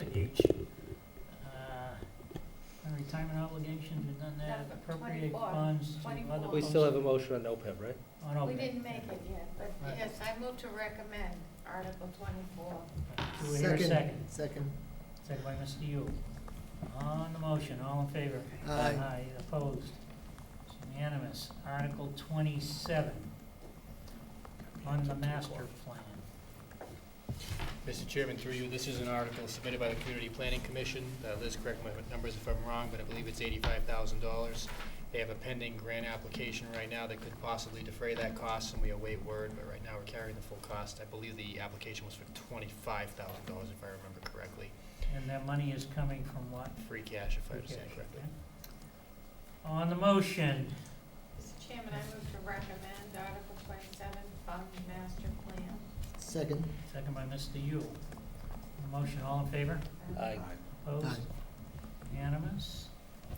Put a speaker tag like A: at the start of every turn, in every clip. A: Uh, retirement obligations, we've done that,
B: Number
A: appropriate
B: 24,
A: funds to other
B: 24.
C: We still have a motion on OPEB, right?
A: On OPEB.
B: We didn't make it yet, but
D: Right.
B: yes, I move to recommend Article twenty-four.
A: Do we hear a second?
D: Second.
A: Second by Mr. Yule. On the motion, all in favor?
D: Aye.
A: opposed? It's unanimous. Article twenty-seven, on the master plan.
E: Mr. Chairman, through you, this is an article submitted by the Community Planning Commission. Uh, Liz, correct my numbers if I'm wrong, but I believe it's eighty-five thousand dollars. They have a pending grant application right now that could possibly defray that cost, and we await word, but right now we're carrying the full cost. I believe the application was for twenty-five thousand dollars, if I remember correctly,
A: And that money is coming from what?
E: free cash, if I understand correctly.
A: On the motion,
B: Mr. Chairman, I move to recommend Article twenty-seven, Fund Master Plan.
D: Second.
A: second by Mr. Yule. On the Motion, all in favor?
C: Aye.
A: Opposed?
D: Aye.
A: Unanimous?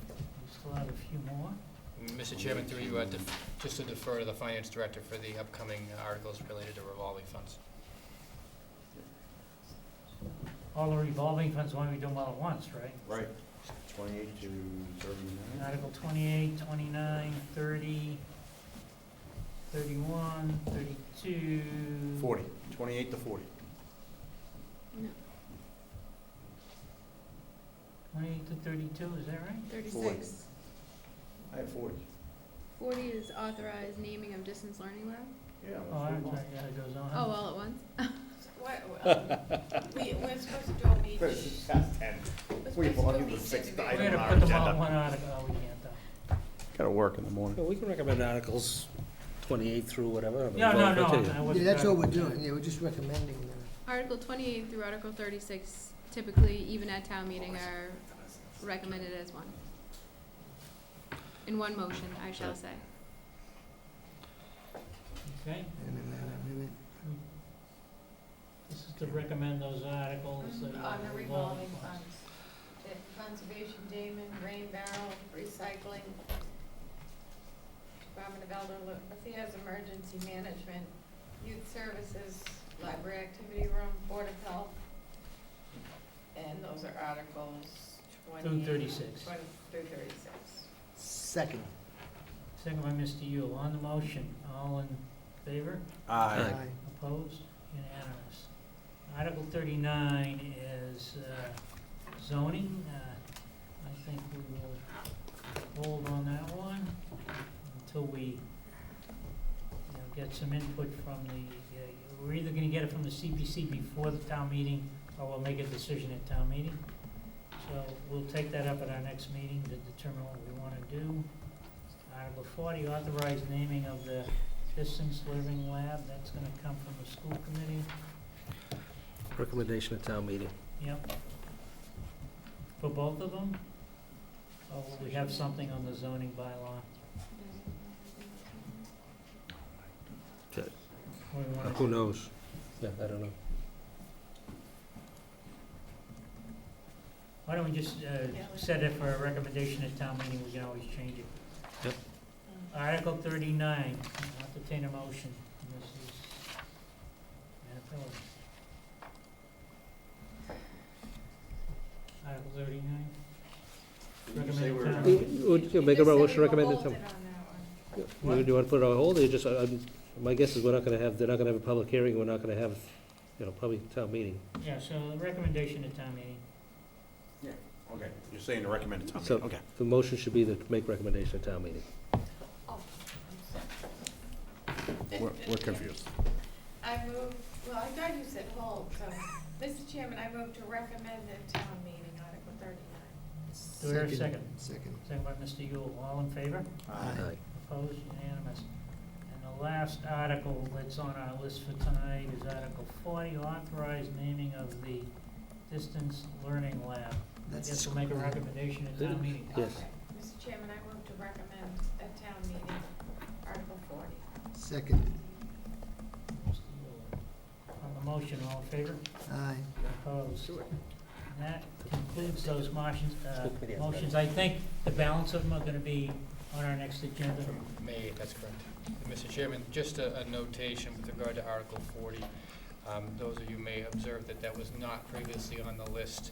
A: We still have a few more.
E: Mr. Chairman, through you, uh, def- just to defer to the Finance Director for the upcoming articles related to revolving funds.
A: All the revolving funds, why don't we do them all at once, right?
F: Right, twenty-eight to thirty-nine.
A: Article 28, 29, 30, 31, 32.
F: Forty, twenty-eight to forty.
A: 28 to 32, is that right?
G: Thirty-six.
F: I have forty.
G: Forty is authorized naming of distance learning lab.
F: Yeah.
A: Oh, I'm sorry, yeah, it goes on.
G: Oh, all at once?
B: We, we're supposed to do a meeting.
F: But it's past ten.
B: We're supposed to
F: we've
B: do a
F: only the
B: meeting
F: sixth
B: today.
A: We're going
F: item.
A: to
F: on our
A: put them all in
F: agenda.
A: one article, oh, we can't though.
F: Gotta work in the morning.
C: Well, we can recommend articles twenty-eight through whatever. but
A: No,
C: we'll
A: no, no,
C: continue.
A: I
D: Yeah,
A: wasn't
D: that's
A: trying
D: all
A: to-
D: we're doing, yeah, we're just recommending them.
G: Article twenty-eight through Article thirty-six typically, even at town meeting, are recommended as one. In one motion, I shall say.
A: Okay,
D: Wait a minute, wait a minute.
A: this is to recommend those articles. uh, that
B: Mhm,
A: are
B: On the revolving funds. The Conservation Damon, Rain Barrel, Recycling, Department of Elder Affairs, Emergency Management, Youth Services, Library Activity Room, Board of Health. And those are Articles twenty.
A: Through 36.
B: Twenty, through thirty-six.
D: Second.
A: Second by Mr. Yule, on the motion, all in favor?
F: Uh,
C: Aye.
D: Aye.
A: Opposed? Unanimous. Article thirty-nine is uh, zoning. Uh, I think we will hold on that one until we, you know, get some input from the, uh, we're either gonna get it from the CPC before the town meeting, or we'll make a decision at town meeting. So we'll take that up at our next meeting to determine what we wanna do. Article forty, authorized naming of the distance living lab, that's gonna come from the school committee,
C: Recommendation at town meeting.
A: yep. For both of them? Or will we have something on the zoning bylaw?
B: Mm-hmm.
A: What do we wanna
C: Who
A: do?
C: knows? Yeah, I don't know.
A: Why don't we just, uh, set it for a recommendation at town meeting, we can always change it.
C: Yep.
A: Article thirty-nine, I'll entertain a motion, Mrs. Manapelli. Article thirty-nine? Recommended town
C: You-
A: meeting.
C: you- you Make a motion to recommend it. to-
A: What?
C: You- Do you want to put it on hold, or you just, I- I'm- my guess is we're not going to have, they're not going to have a public hearing, we're not going to have, you know, probably town meeting.
A: Yeah, so the recommendation at town meeting.
F: Okay, you're saying to recommend it, Tommy,
C: So-
F: okay.
C: The motion should be to make recommendation at town meeting.
B: Oh,
F: We're, we're confused.
B: I move, well, I thought you said hold, so, Mr. Chairman, I move to recommend the town meeting Article thirty-nine.
A: Do we hear a second?
D: Second.
A: Second by Mr. Yule, all in favor?
F: Uh,
D: Aye.
A: Opposed, unanimous. And the last article that's on our list for tonight is Article forty, authorize naming of the distance learning lab. I
D: That's
A: guess we'll make a recommendation at town meeting.
C: Yes.
B: Okay. Mr. Chairman, I move to recommend at town meeting Article forty.
D: Second.
A: Mr. Yule. On the motion, all in favor?
D: Aye.
A: Opposed? And that concludes those motions, uh,
C: School committee has that.
A: motions. I think the balance of them are gonna be on our next agenda.
E: From May, that's correct. Mr. Chairman, just a, a notation with regard to Article forty. Um, those of you may observe that that was not previously on the list.